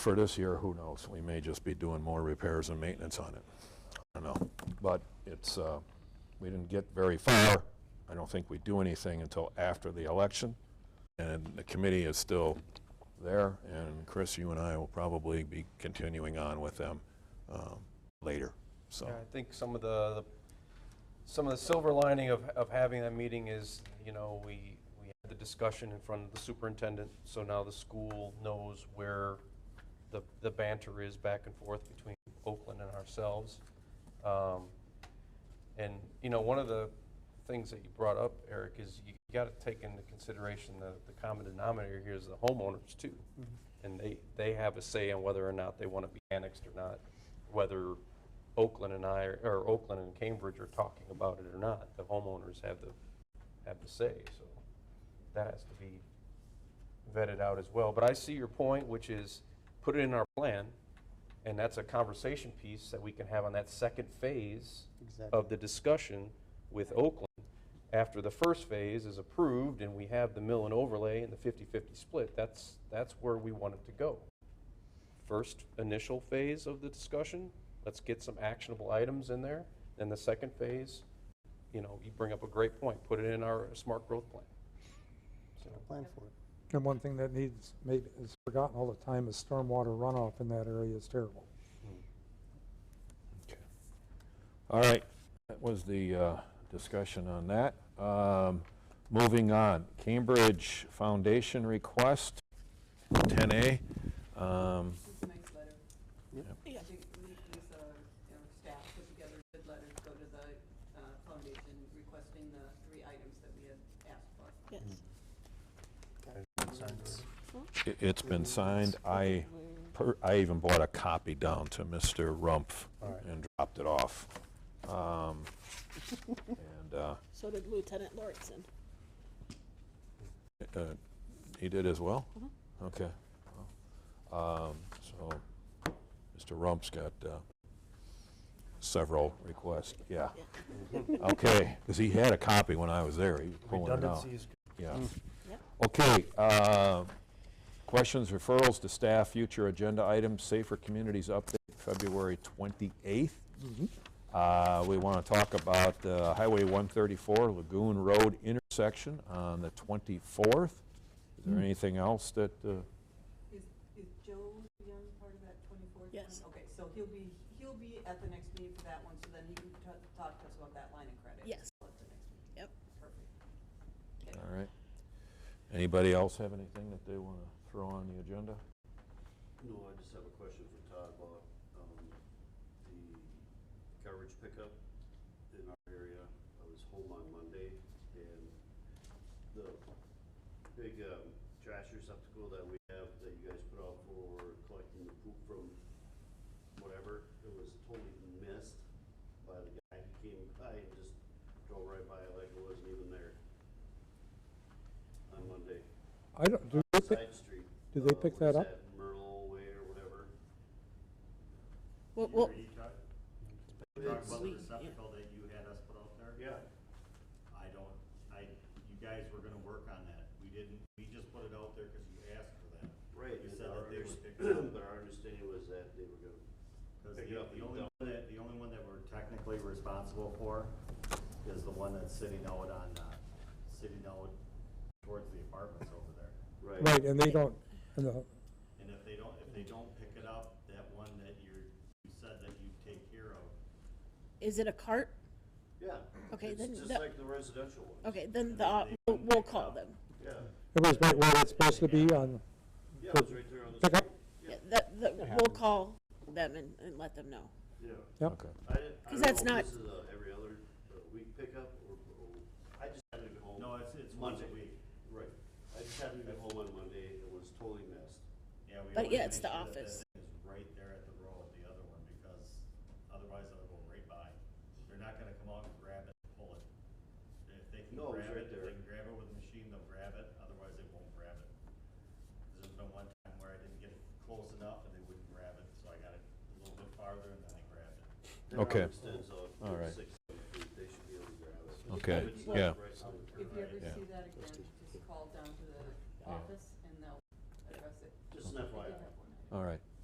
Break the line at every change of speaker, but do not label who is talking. For this year, who knows? We may just be doing more repairs and maintenance on it. I don't know. But it's, uh, we didn't get very far. I don't think we do anything until after the election. And the committee is still there. And Chris, you and I will probably be continuing on with them um, later, so.
Yeah, I think some of the, the- some of the silver lining of, of having that meeting is, you know, we, we had the discussion in front of the superintendent, so now the school knows where the, the banter is back and forth between Oakland and ourselves. Um, And, you know, one of the things that you brought up, Eric, is you got to take into consideration the, the common denominator here is the homeowners too. And they, they have a say on whether or not they want to be annexed or not, whether Oakland and I, or Oakland and Cambridge are talking about it or not. The homeowners have the, have the say, so that has to be vetted out as well. But I see your point, which is put it in our plan, and that's a conversation piece that we can have on that second phase of the discussion with Oakland after the first phase is approved and we have the mill and overlay and the 50/50 split. That's, that's where we want it to go. First initial phase of the discussion, let's get some actionable items in there. Then the second phase, you know, you bring up a great point, put it in our smart growth plan. So,
plan for it.
And one thing that needs, maybe is forgotten all the time, is stormwater runoff in that area is terrible.
All right, that was the uh, discussion on that. Um, Moving on, Cambridge Foundation request, 10A. Um,
It's a nice letter. I think we- this, uh, our staff put together a good letter to go to the uh, foundation requesting the three items that we had asked for.
Yes.
i- It's been signed. I, per- I even bought a copy down to Mr. Rumpf and dropped it off. Um, And uh,
So did Lieutenant Lauritsen.
uh, he did as well? Okay. Well, um, So, Mr. Rump's got uh, several requests, yeah. Okay, because he had a copy when I was there, he was pulling it out.
Redundancy is
Yeah.
Yep.
Okay, uh, questions, referrals to staff, future agenda items, Safer Communities update, February 28th. Uh, We want to talk about uh, Highway 134 Lagoon Road intersection on the 24th. Is there anything else that, uh,
Is, is Joe Young part of that twenty-fourth?
Yes.
Okay, so he'll be, he'll be at the next meeting for that one, so then he can ta- talk to us about that line of credit.
Yes.
At the next meeting.
Yep.
Perfect.
all right? Anybody else have anything that they want to throw on the agenda?
No, I just have a question for Todd about, um, the garbage pickup in our area. I was home on Monday and the big, um, trash receptacle that we have that you guys put out for collecting the poop from whatever, it was totally missed by the guy. He came by and just drove right by it like it wasn't even there on Monday.
I don't, do they pick-
Side street.
do they
uh,
pick
what is
that up?
Merle Way or whatever.
Well, well,
Are you talk-
It's-
talking about the receptacle that you had us put out there?
Yeah,
I don't, I, you guys were gonna work on that. We didn't, we just put it out there because you asked for that.
right,
You
and
said
our
that they would
underst-
pick it up.
but our understanding was that they were gonna,
Because
Pick
the,
it up
the
and
only
dump.
one that, the only one that we're technically responsible for is the one that's sitting out on, uh, sitting out towards the apartments over there.
right.
Right, and they don't, and the-
And if they don't, if they don't pick it up, that one that you're, you said that you'd take care of,
is it a cart?
Yeah.
Okay,
It's
then
just
the-
like the residential one,
Okay, then the, uh, we'll- we'll call them.
yeah,
it was right where it's supposed to be on,
yeah, it was right there on the.
Pick up.
street.
Yeah, that, that, we'll call them and, and let them know.
Yeah.
yep.
Okay.
I didn't, I
'Cause
don't know
that's
if
not-
this is a every other uh, week pickup or, or, I just happened to be home.
No, it's, it's once a
Monday.
week.
Right, I just happened to be home on Monday, it was totally missed.
Yeah, we
But
wanna
yeah, it's
make
the
sure that that
office.
thing Is right there at the row of the other one, because otherwise it'll go right by. They're not gonna come out and grab it, and pull it. If they can
No, it's
grab
right
it, if
there.
they can grab it with a machine, they'll grab it, otherwise they won't grab it. 'Cause There's been one time where I didn't get it close enough and they wouldn't grab it, so I got it a little bit farther and then they grabbed it.
Their
Okay.
arm extends out
All right.
six, they should be able to grab it.
Okay,
It's not
yeah.
right on the
If you ever
Yeah.
see that again, just call down to the office and they'll address it.
Just an
They did
FYI.
have one.
All right.